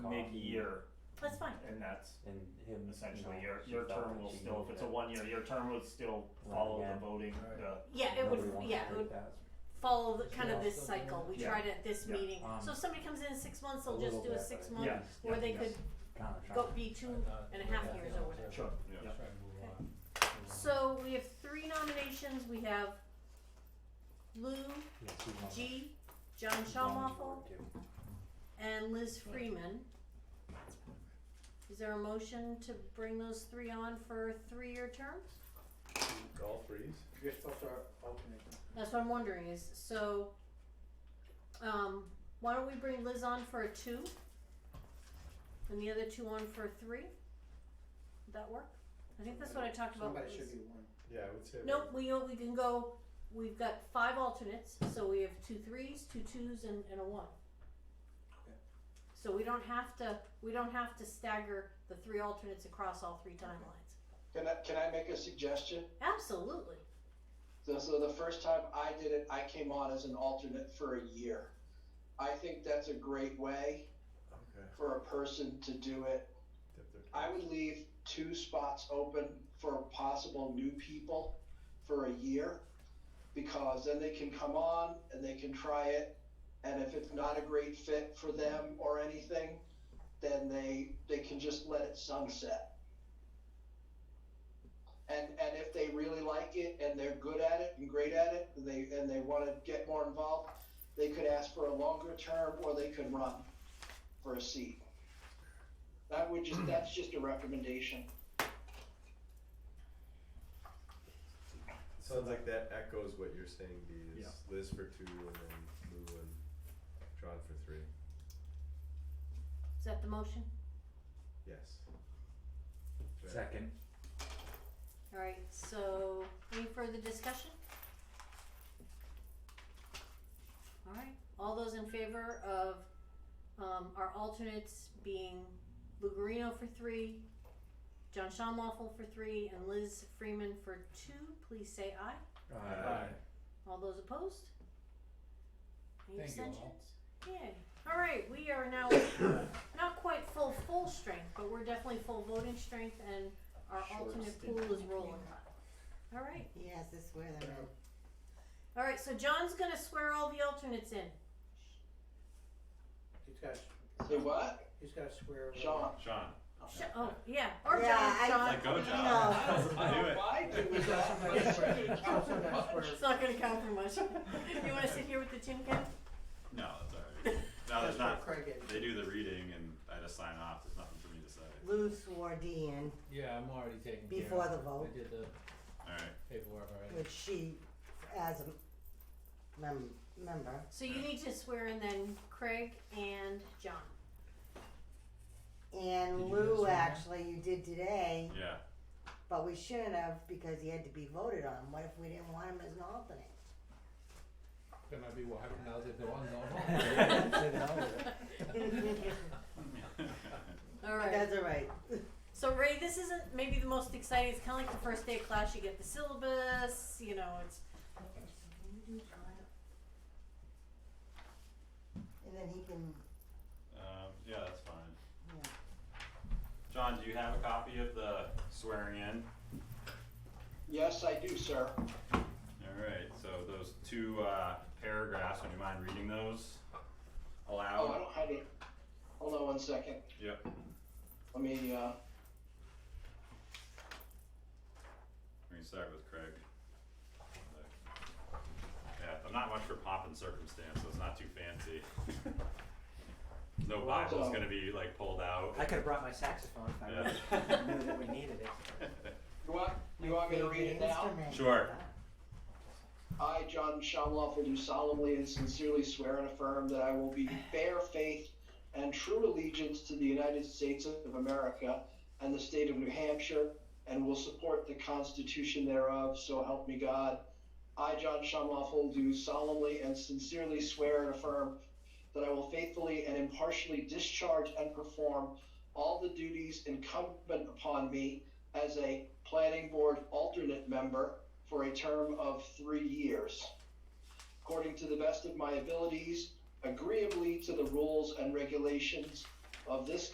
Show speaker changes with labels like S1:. S1: mid-year,
S2: That's fine.
S1: and that's
S3: and him.
S1: essentially
S3: you know,
S1: your
S3: she
S1: your
S3: felt
S1: term
S3: like
S1: will
S3: she
S1: still, if
S3: needed
S1: it's a
S3: it.
S1: one-year, your term would still
S3: Run
S1: follow
S3: again.
S1: the voting,
S4: Right.
S1: the,
S2: Yeah, it
S3: Nobody
S2: would.
S3: wants to
S2: Yeah, it
S3: take
S2: would
S3: that.
S2: follow the, kind
S3: Yeah,
S2: of this
S3: something
S2: cycle.
S3: like
S2: We
S1: that.
S2: tried it at this
S1: Yeah.
S2: meeting.
S3: Um,
S2: so if somebody comes in in six months, they'll
S3: A
S2: just
S3: little
S2: do a
S3: bit,
S2: six
S3: but
S2: month,
S1: yeah,
S2: or
S1: yeah,
S2: they
S1: yes.
S2: could
S3: Kinda trying
S2: go
S3: to-
S2: be two and a half years or whatever.
S1: Sure, yeah.
S4: Try to move on.
S2: So we have three nominations. We have Lou
S3: yeah, she's on-
S2: G, John
S3: she's on the
S2: Shawmoffel,
S3: board too.
S2: and Liz Freeman. Is there a motion to bring those three on for three-year terms?
S5: All threes?
S4: You're supposed to alternate.
S2: That's what I'm wondering is, so, um, why don't we bring Liz on for a two? And the other two on for a three? Would that work? I think that's what I talked about.
S4: Somebody
S2: with
S4: should
S2: Liz.
S4: be one.
S5: Yeah, I would say.
S2: Nope, we, uh, we can go, we've got five alternates, so we have two threes, two twos, and, and a one.
S4: Okay.
S2: So we don't have to, we don't have to stagger the three alternates across all three timelines.
S6: Can I, can I make a suggestion?
S2: Absolutely.
S6: So, so the first time I did it, I came on as an alternate for a year. I think that's a great way
S5: Okay.
S6: for a person to do it.
S5: Dip their
S6: I
S5: toes.
S6: would leave two spots open for possible new people for a year because then they can come on and they can try it. And if it's not a great fit for them or anything, then they they can just let it sunset. And and if they really like it and they're good at it and great at it and they and they want to get more involved, they could ask for a longer term or they could run for a seat. That would just, that's just a recommendation.
S5: Sounds like that echoes what you're saying, Dee, is
S1: Yeah.
S5: Liz for two and then Lou and John for three.
S2: Is that the motion?
S5: Yes. Right.
S3: Second,
S2: Alright, so any further discussion? Alright, all those in favor of, um, our alternates being Lou Guarino for three, John Schamoffel for three, and Liz Freeman for two, please say aye.
S3: uh,
S2: All those opposed? Any
S4: Thank you all.
S2: abstentions? Yay, alright, we are now not quite full, full strength, but we're definitely full voting strength and our
S1: Short
S2: alternate
S1: stint.
S2: pool is rolling. Alright,
S7: He has to swear them in.
S2: All right, so John's gonna swear all the alternates in.
S4: He's got,
S6: Say what?
S4: he's got to swear.
S6: Sean?
S8: Sean.
S2: Sh- oh yeah, or
S7: Yeah,
S2: John.
S7: I-
S2: John.
S8: Like, go,
S7: No.
S8: John. Do it.
S6: I do
S4: He's
S6: with
S4: got
S6: that.
S4: somebody to swear. He's got somebody to swear.
S2: It's not gonna count for much. you want to sit here with the tin can?
S8: No, that's alright. No,
S4: That's
S8: there's
S4: what
S8: not.
S4: Craig had.
S8: They do the reading and I just sign off. There's nothing for me to say.
S7: Lou swore Dee in
S9: Yeah, I'm already taking care
S7: Before
S9: of
S7: the
S9: it.
S7: vote.
S9: I did the
S8: Alright.
S9: paperwork already.
S7: which she, as a mem- member,
S2: So you need to swear in then Craig and John.
S7: and
S9: Did you guys
S7: Lou
S9: sign that?
S7: actually, you did today,
S8: Yeah.
S7: but we shouldn't have because he had to be voted on. What if we didn't want him as an alternate?
S9: There might be what happened out if there was
S8: Um,
S2: All right.
S7: That's all right.
S2: So Ray, this isn't maybe the most exciting. It's kind of like the first day of class. You get the syllabus. You know, it's
S7: And then he can,
S8: um, yeah, that's fine.
S7: Yeah.
S8: John, do you have a copy of the swearing in?
S6: Yes, I do, sir.
S8: Alright, so those two uh, paragraphs, would you mind reading those
S6: Oh, I
S8: aloud?
S6: don't have it. Hold on one second.
S8: Yep.
S6: Let me, uh,
S8: We can start with Craig. Yeah, I'm not much for pomp and circumstance, so it's not too fancy. No Bible's gonna be like pulled out.
S1: I could have brought my saxophone if I
S8: Yeah.
S1: would've knew that we needed it.
S6: you want, you want me to read it now?
S7: Instrument.
S8: Sure.
S6: I, John Shamloff, do solemnly and sincerely swear and affirm that I will be bear faith and true allegiance to the United States of America and the state of New Hampshire, and will support the Constitution thereof, so help me God. I, John Shamloff, do solemnly and sincerely swear and affirm that I will faithfully and impartially discharge and perform all the duties incumbent upon me as a planning board alternate member for a term of three years. According to the best of my abilities, agreeably to the rules and regulations of this